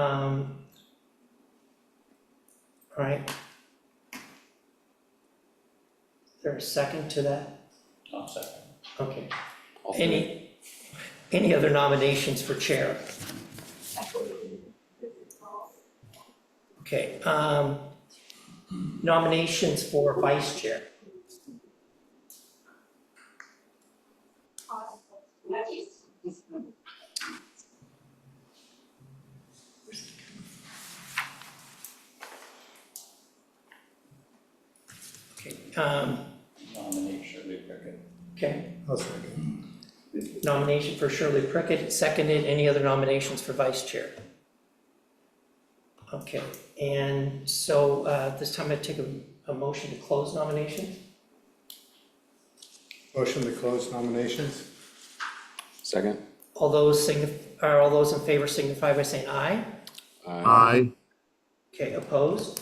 Um. Alright. Is there a second to that? I'll second. Okay, All three. any, any other nominations for chair? Okay, um, nominations for vice chair, okay, um, Nominate Shirley Pickett. okay. I'll second. Nomination for Shirley Prickett, seconded, any other nominations for vice chair? Okay, and so, uh, this time I take a, a motion to close nominations? Motion to close nominations? Second? All those signif, or all those in favor signify by saying aye. Aye. Aye, Okay, opposed?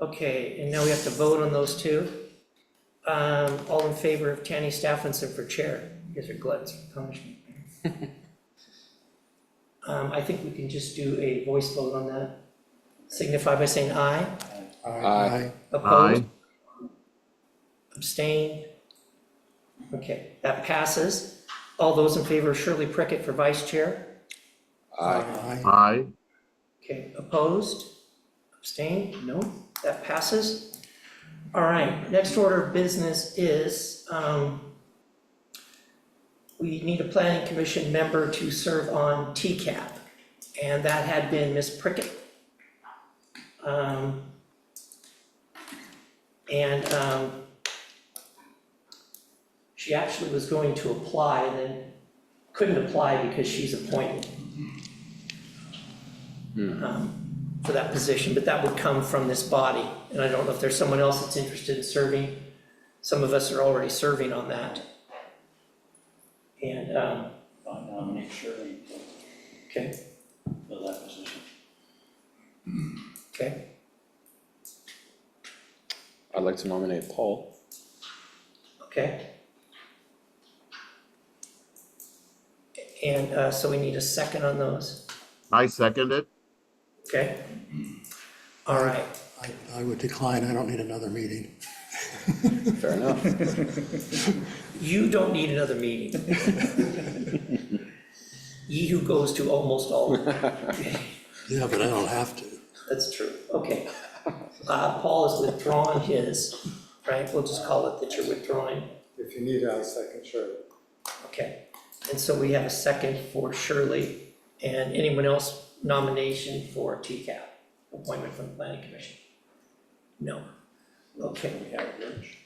Okay, and now we have to vote on those two. Um, all in favor of Tanny Staffenson for chair, you guys are gluttons for punishment. Um, I think we can just do a voice vote on that. Signify by saying aye. Aye. Opposed? aye, Abstained? Okay, that passes. All those in favor of Shirley Prickett for vice chair? Aye. aye, Okay, opposed, abstained, no, that passes. All right, next order of business is, um, we need a planning commission member to serve on TCAP, and that had been Ms. Prickett. Um, and, um, she actually was going to apply and then couldn't apply because she's appointed um, for that position, but that would come from this body. And I don't know if there's someone else that's interested in serving. Some of us are already serving on that. And, um, I nominate Shirley to okay, fill that position. okay, I'd like to nominate Paul. okay. And uh, so we need a second on those, I second it, okay? All right, I, I would decline, I don't need another meeting. Fair enough. you don't need another meeting. Ye who goes to almost all. Yeah, but I don't have to. That's true, okay. Uh, Paul has withdrawn his, right, we'll just call it that you're withdrawing, If you need, I'll second, sure. okay. And so we have a second for Shirley, and anyone else nomination for TCAP, appointment from the planning commission? No, okay, We have Rich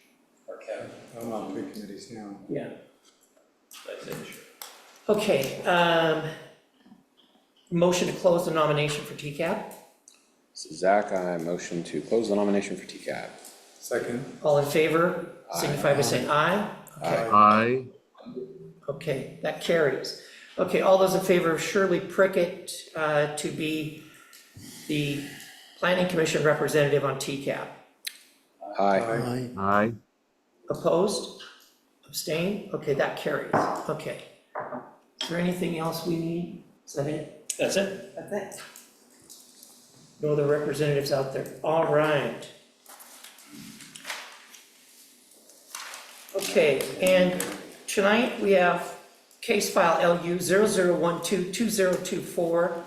or Kevin. I'm on three committees now. yeah, That's it, Shirley. okay, um, motion to close the nomination for TCAP, So Zach, I motion to close the nomination for TCAP. Second? all in favor, signify by saying aye. Okay. aye, Okay, that carries. Okay, all those in favor of Shirley Prickett uh, to be the Planning Commission representative on TCAP? Aye. Aye. aye, Opposed? Abstained? Okay, that carries. Okay. Is there anything else we need? Is that it? That's it? That's it. No other representatives out there? All right. Okay, and Tonight, we have case file LU 00122024,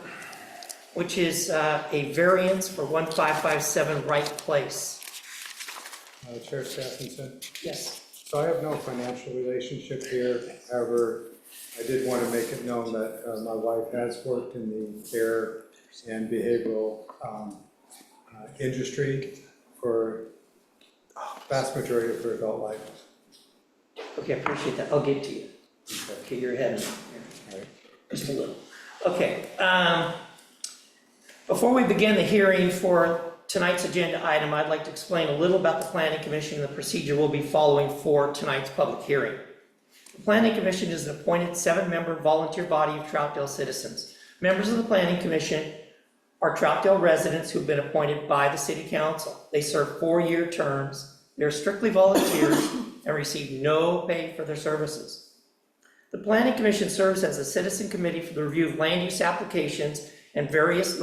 which is uh, a variance for 1557 Wright Place. Uh, Chair Stephenson, Yes. so I have no financial relationship here, however, I did want to make it known that uh, my wife has worked in the care and behavioral um, uh, industry for uh, vast majority of her adult life. Okay, I appreciate that. I'll get to you. Okay, you're ahead of me here. Just a little. Okay. um, Before we begin the hearing for tonight's agenda item, I'd like to explain a little about the Planning Commission and the procedure we'll be following for tonight's public hearing. The Planning Commission is an appointed seven-member volunteer body of Troutdale citizens. Members of the Planning Commission are Troutdale residents who've been appointed by the city council. They serve four-year terms, they're strictly volunteers, and receive no pay for their services. The planning commission serves as a citizen committee for the review of land use applications and various